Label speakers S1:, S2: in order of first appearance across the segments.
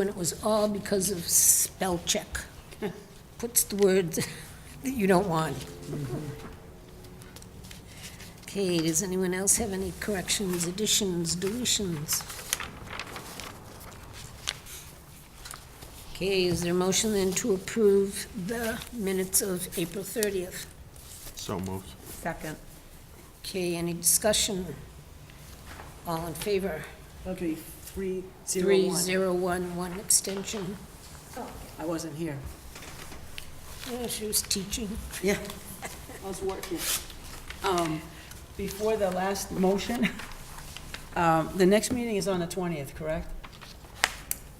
S1: And it was all because of spell check. Puts the words that you don't want. Okay, does anyone else have any corrections, additions, deletions? Okay, is there a motion then to approve the minutes of April 30th?
S2: So moved.
S3: Second.
S1: Okay, any discussion? All in favor?
S3: Okay, three, zero,
S1: Three,
S3: one.
S1: zero, one, one extension.
S3: I wasn't here.
S1: Yeah, she was teaching.
S3: Yeah. I was working. Um, Before the last motion, um, the next meeting is on the 20th, correct?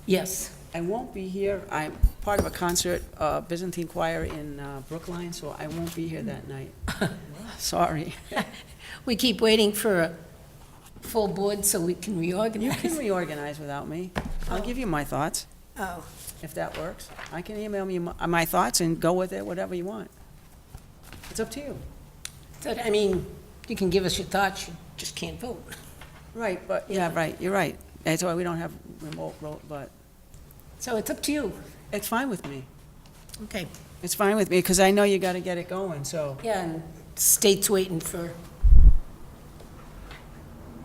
S1: Yes.
S3: I won't be here. I'm part of a concert, uh, Byzantine Choir in uh, Brookline, so I won't be here that night. Sorry.
S1: We keep waiting for a full board so we can
S3: You
S1: reorganize.
S3: can reorganize without me. I'll give you my thoughts,
S1: Oh,
S3: if that works. I can email me my my thoughts and go with it, whatever you want. It's up to you.
S1: so, I mean, you can give us your thoughts, you just can't vote.
S3: Right, but, yeah, right, you're right. That's why we don't have remote vote, but
S1: So it's up to you.
S3: it's fine with me.
S1: Okay.
S3: It's fine with me, because I know you gotta get it going, so.
S1: Yeah, and state's waiting for,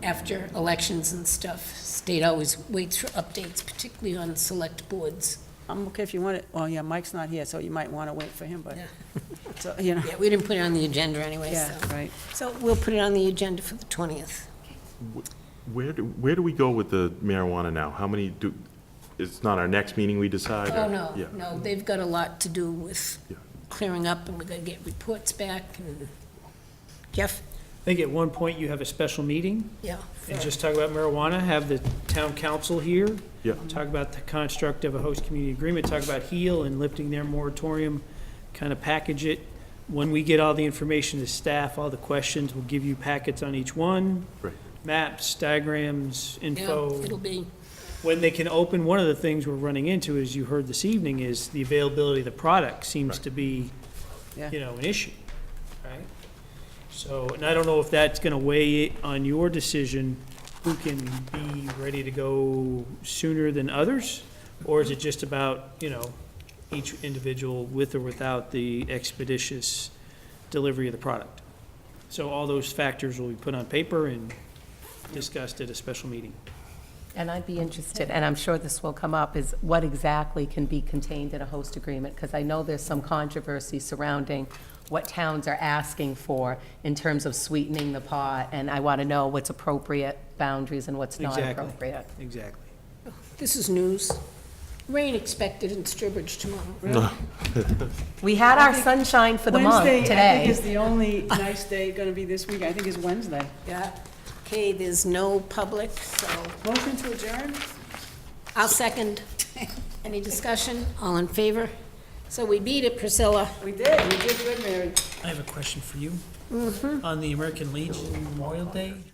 S1: after elections and stuff, state always waits for updates, particularly on select boards.
S3: I'm okay if you want it, well, yeah, Mike's not here, so you might wanna wait for him, but,
S1: Yeah.
S3: so, you know,
S1: Yeah, we didn't put it on the agenda anyway,
S3: yeah,
S1: so.
S3: right.
S1: So we'll put it on the agenda for the 20th.
S2: Where do, where do we go with the marijuana now? How many do, it's not our next meeting we decide? or-
S1: Oh, no,
S2: Yeah.
S1: no, they've got a lot to do with
S2: Yeah.
S1: clearing up, and we're gonna get reports back, and Jeff,
S4: I think at one point you have a special meeting
S1: yeah.
S4: and just talk about marijuana, have the town council here.
S2: Yeah.
S4: Talk about the construct of a host community agreement, talk about HEAL and lifting their moratorium, kind of package it. When we get all the information to staff, all the questions, we'll give you packets on each one,
S2: Right.
S4: maps, diagrams,
S1: Yeah,
S4: info.
S1: it'll be,
S4: When they can open, one of the things we're running into, as you heard this evening, is the availability of the product seems to be,
S3: Yeah.
S4: you know, an issue, right? So, and I don't know if that's gonna weigh it on your decision, who can be ready to go sooner than others? Or is it just about, you know, each individual with or without the expeditious delivery of the product? So all those factors will be put on paper and discussed at a special meeting.
S5: And I'd be interested, and I'm sure this will come up, is what exactly can be contained in a host agreement? Because I know there's some controversy surrounding what towns are asking for in terms of sweetening the pot, and I want to know what's appropriate boundaries and what's not
S4: Exactly.
S5: appropriate.
S4: Exactly.
S1: this is news. Rain expected in Sturbridge tomorrow.
S5: We had our sunshine for the month today.
S3: Wednesday, I think is the only nice day gonna be this week, I think is Wednesday.
S1: Yeah, okay, there's no public, so
S3: Motion to adjourn?
S1: I'll second. Any discussion? All in favor? So we beat it, Priscilla.
S3: We did, we did good, Mary.
S6: I have a question for you. On the American Legion Memorial Day,